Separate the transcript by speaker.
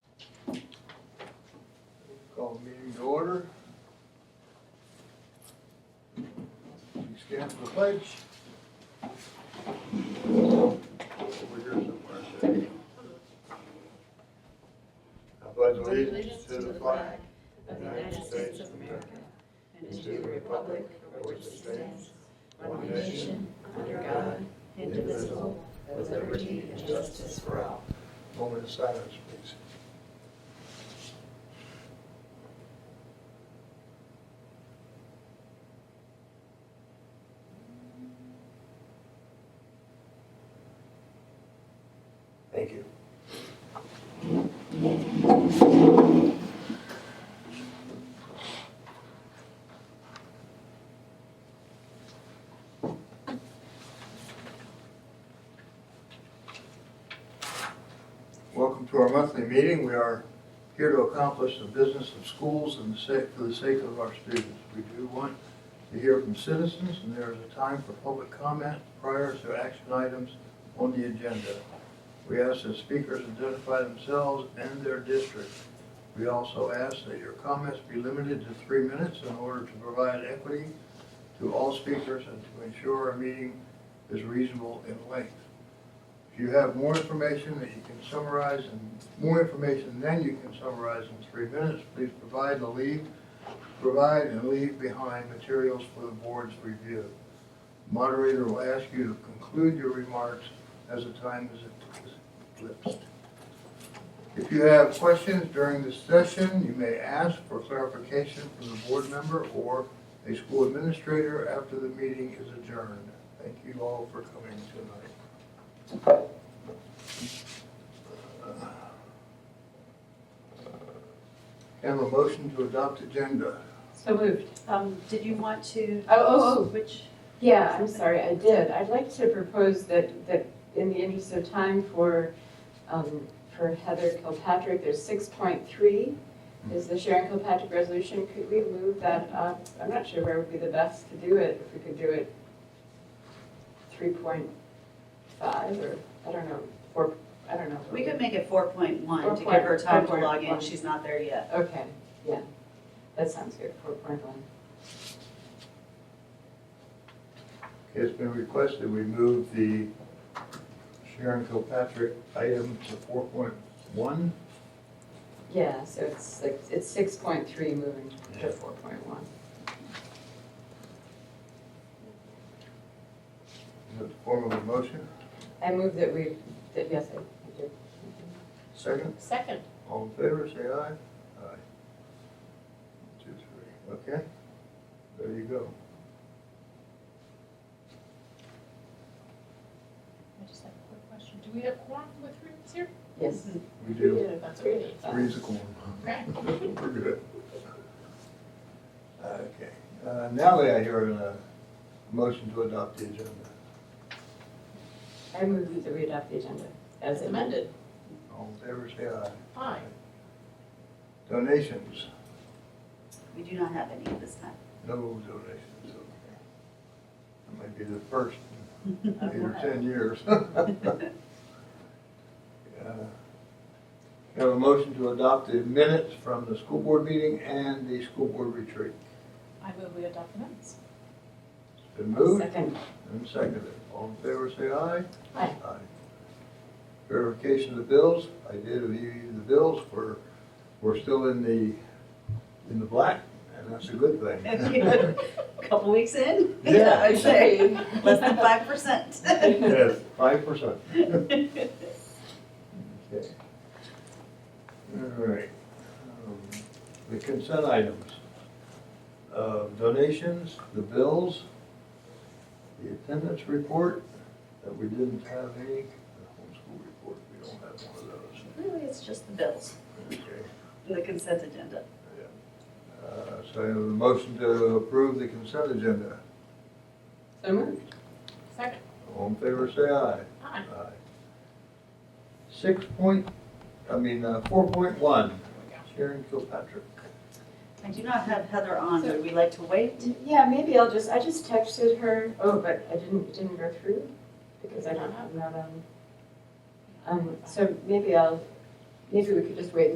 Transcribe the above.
Speaker 1: Call the meeting to order. Please stand for the pledge. Over here somewhere. I pledge allegiance to the flag of the United States of America and to the republic for which it stands, one nation, under God, indivisible, with liberty and justice for all. Moment of silence, please. Thank you. Welcome to our monthly meeting. We are here to accomplish the business of schools and the sake, for the sake of our students. We do want to hear from citizens, and there is a time for public comment prior to action items on the agenda. We ask that speakers identify themselves and their district. We also ask that your comments be limited to three minutes in order to provide equity to all speakers and to ensure our meeting is reasonable in length. If you have more information that you can summarize and more information than you can summarize in three minutes, please provide and leave, provide and leave behind materials for the board's review. Moderator will ask you to conclude your remarks as the time is eclipsed. If you have questions during this session, you may ask for clarification from the board member or a school administrator after the meeting is adjourned. Thank you all for coming tonight. Have a motion to adopt agenda.
Speaker 2: So moved.
Speaker 3: Um, did you want to?
Speaker 2: Oh, oh, oh.
Speaker 3: Which,
Speaker 2: Yeah, I'm sorry, I did. I'd like to propose that, that in the interest of time for, um, for Heather Kilpatrick, there's six point three is the Sharon Kilpatrick resolution. Could we move that up? I'm not sure where would be the best to do it, if we could do it three point five or, I don't know, four, I don't know.
Speaker 3: we could make it four point one to give her time to log in, she's not there yet.
Speaker 2: Okay, yeah, that sounds good, four point one.
Speaker 1: It's been requested we move the Sharon Kilpatrick item to four point one.
Speaker 2: Yeah, so it's like, it's six point three moving
Speaker 1: Yeah.
Speaker 2: to four point one.
Speaker 1: Is that the form of a motion?
Speaker 2: I move that we, that, yes, I I did.
Speaker 1: Second,
Speaker 3: Second.
Speaker 1: all in favor, say aye. Aye. Two, three, okay? There you go.
Speaker 4: I just have a quick question. Do we have quorum with rooms here?
Speaker 2: Yes.
Speaker 1: We do.
Speaker 4: Mhm. That's great.
Speaker 1: Three's a quorum.
Speaker 4: Okay.
Speaker 1: We're good. Okay, uh, now may I hear a motion to adopt the agenda?
Speaker 2: I move that we adopt the agenda as
Speaker 4: As
Speaker 2: amended.
Speaker 4: amended.
Speaker 1: All in favor, say aye.
Speaker 4: Aye.
Speaker 1: Donations,
Speaker 3: We do not have any at this time.
Speaker 1: no donations, okay. That might be the first in eight or ten years. Uh, Have a motion to adopt the minutes from the school board meeting and the school board retreat.
Speaker 4: I move we adopt the minutes.
Speaker 1: It's been moved
Speaker 2: Second,
Speaker 1: and seconded. All in favor, say aye.
Speaker 2: Aye.
Speaker 1: Verification of the bills, I did review the bills, we're, we're still in the, in the black, and that's a good thing.
Speaker 3: Couple weeks in?
Speaker 1: Yeah.
Speaker 3: I'd say, less than five percent.
Speaker 1: Yes, five percent. Okay. All right. Um, The consent items. Uh, Donations, the bills, the attendance report, that we didn't have any, the homeschool report, we don't have one of those.
Speaker 3: Really, it's just the bills
Speaker 1: Okay.
Speaker 3: and the consent agenda.
Speaker 1: Uh, So I have a motion to approve the consent agenda.
Speaker 2: so moved.
Speaker 4: Second.
Speaker 1: All in favor, say aye.
Speaker 4: Aye.
Speaker 1: Aye. Six point, I mean, uh, four point one, Sharon Kilpatrick.
Speaker 3: I do not have Heather on, would we like to wait?
Speaker 2: Yeah, maybe I'll just, I just texted her, oh, but I didn't, didn't go through because I don't have, not, um, um, so maybe I'll, maybe we could just wait